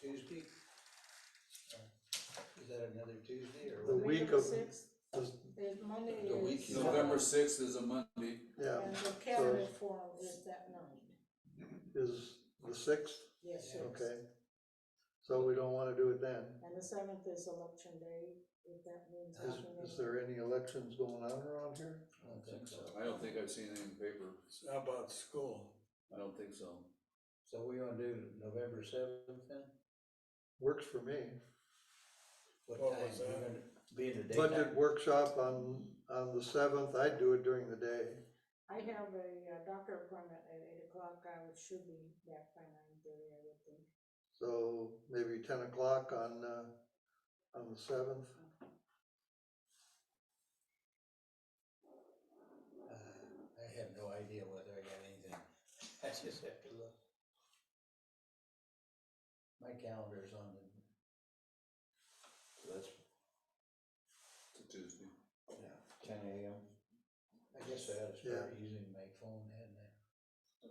Tuesday? Uh, Is that another Tuesday or The what? week November of- sixth, Does- the Monday The week is. is- uh, November sixth is a Monday. Yeah, And the calendar forum is that night, is the sixth, yes, sir. okay. So we don't wanna do it then. And the seventh is election day, if that means. Is, is there any elections going on around here? I don't think so. I don't think I've seen it in the paper. How about school? I don't think so. So we wanna do November seventh then? Works for me. What What time? was We're that? gonna Be in the Budget daytime? workshop on, on the seventh, I'd do it during the day. I have a uh, doctor appointment at eight o'clock, I would- should be back by nine thirty, I would think. So maybe ten o'clock on, uh, on the seventh. Uh, I have no idea whether I got anything. I just have to look. My calendar is on the. So that's, It's a Tuesday. yeah, ten AM. I guess I ought to start using my phone, hadn't I?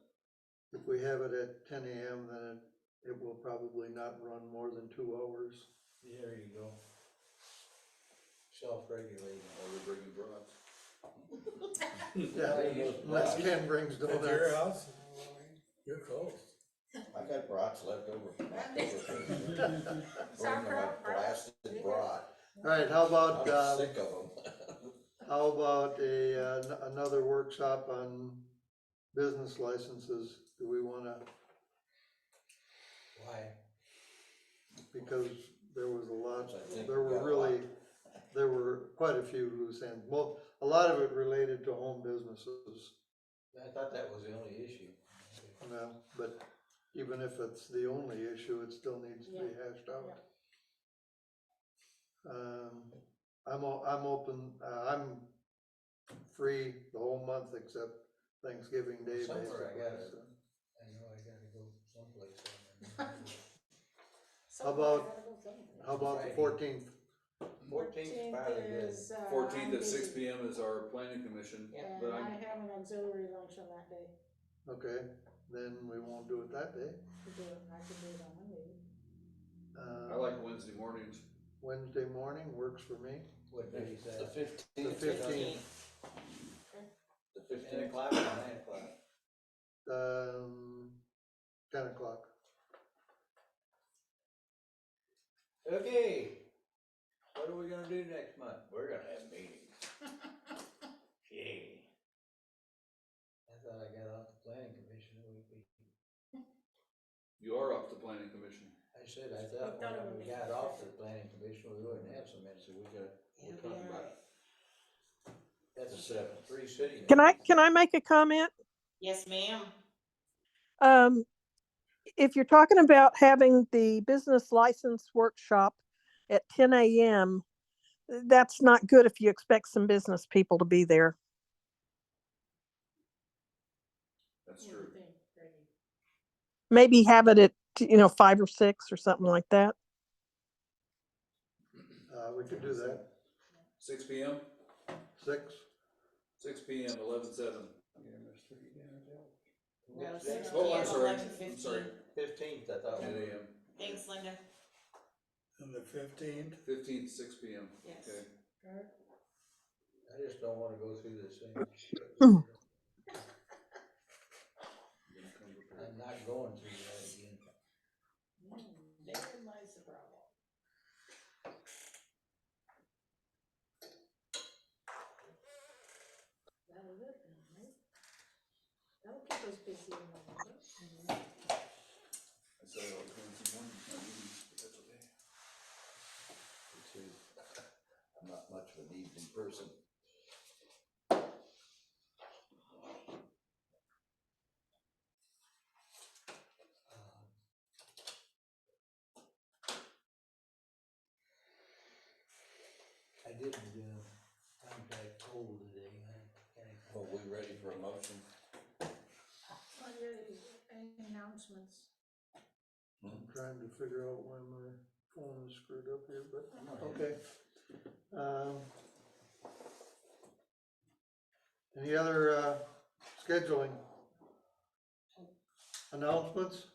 If we have it at ten AM, then it, it will probably not run more than two hours. There you go. Self-regulating. Or we're bringing broth. Yeah, unless Ken brings At your donuts. house? You're close. I got brats left over from October. Bring them Sauerkraut, up blasted brat. Alright, how about, I'm uh, sick of them. how about a, uh, n- another workshop on business licenses? Do we wanna, Why? because there was a lot, I think there we were got a really, lot. there were quite a few loose ends. Well, a lot of it related to home businesses, I thought that was the only issue. you know, but even if it's the only issue, it still needs to be Yeah, hashed out. Um, I'm, o- I'm open, uh, I'm free the whole month except Thanksgiving Day, basically. Somewhere I gotta- so. I know I gotta go someplace. I don't know. How about- How about the Friday. fourteenth? Fourteenth is probably good. uh, Fourteenth at six P M is our planning commission, And but I I'm, have an auxiliary lunch on that day, Okay, then we won't do it that day. to do it, I could do it on Monday. Uh, I like Wednesday mornings. Wednesday morning works for me. What day is The that? fifteenth. The fifteenth, The Ten fifteenth. o'clock or nine o'clock? um, ten o'clock. Okay, what are we gonna do next month? We're gonna have meetings. Yay. I thought I got off the planning commission a week ago. You are off the planning commission. I said, I thought thought it when would we be- got off the planning commission, we wouldn't have so many, so we got, We're talking about, that's uh, three city. Can I, meetings. can I make a comment? Yes, ma'am. Um, if you're talking about having the business license workshop at ten AM, that's not good if you expect some business people to be there. that's What do you true. think, Peggy? Maybe have it at, you know, five or six or something like that. Uh, we could do that. Six P M, Six, six P M, eleven seven. No, Next- six next- Oh, PM, I'm sorry, eleven I'm sorry, Fifteenth, I thought. ten we- AM, Thanks, Linda. And the fifteenth? fifteenth, six P M, Yes. okay. I just don't wanna go through this thing. I'm not going through that again. Hmm, Therein lies the problem. That'll do it, then, right? That'll keep us busy in November. I said, oh, Wednesday morning, that's okay. I'm not much of an evening person. I didn't, uh, contact Cole today, I kinda Are we ready for a motion? Are there any announcements? I'm trying to figure out why my phone is screwed up here, but, I'm not- okay. Um, Any other, uh, scheduling? Announcements?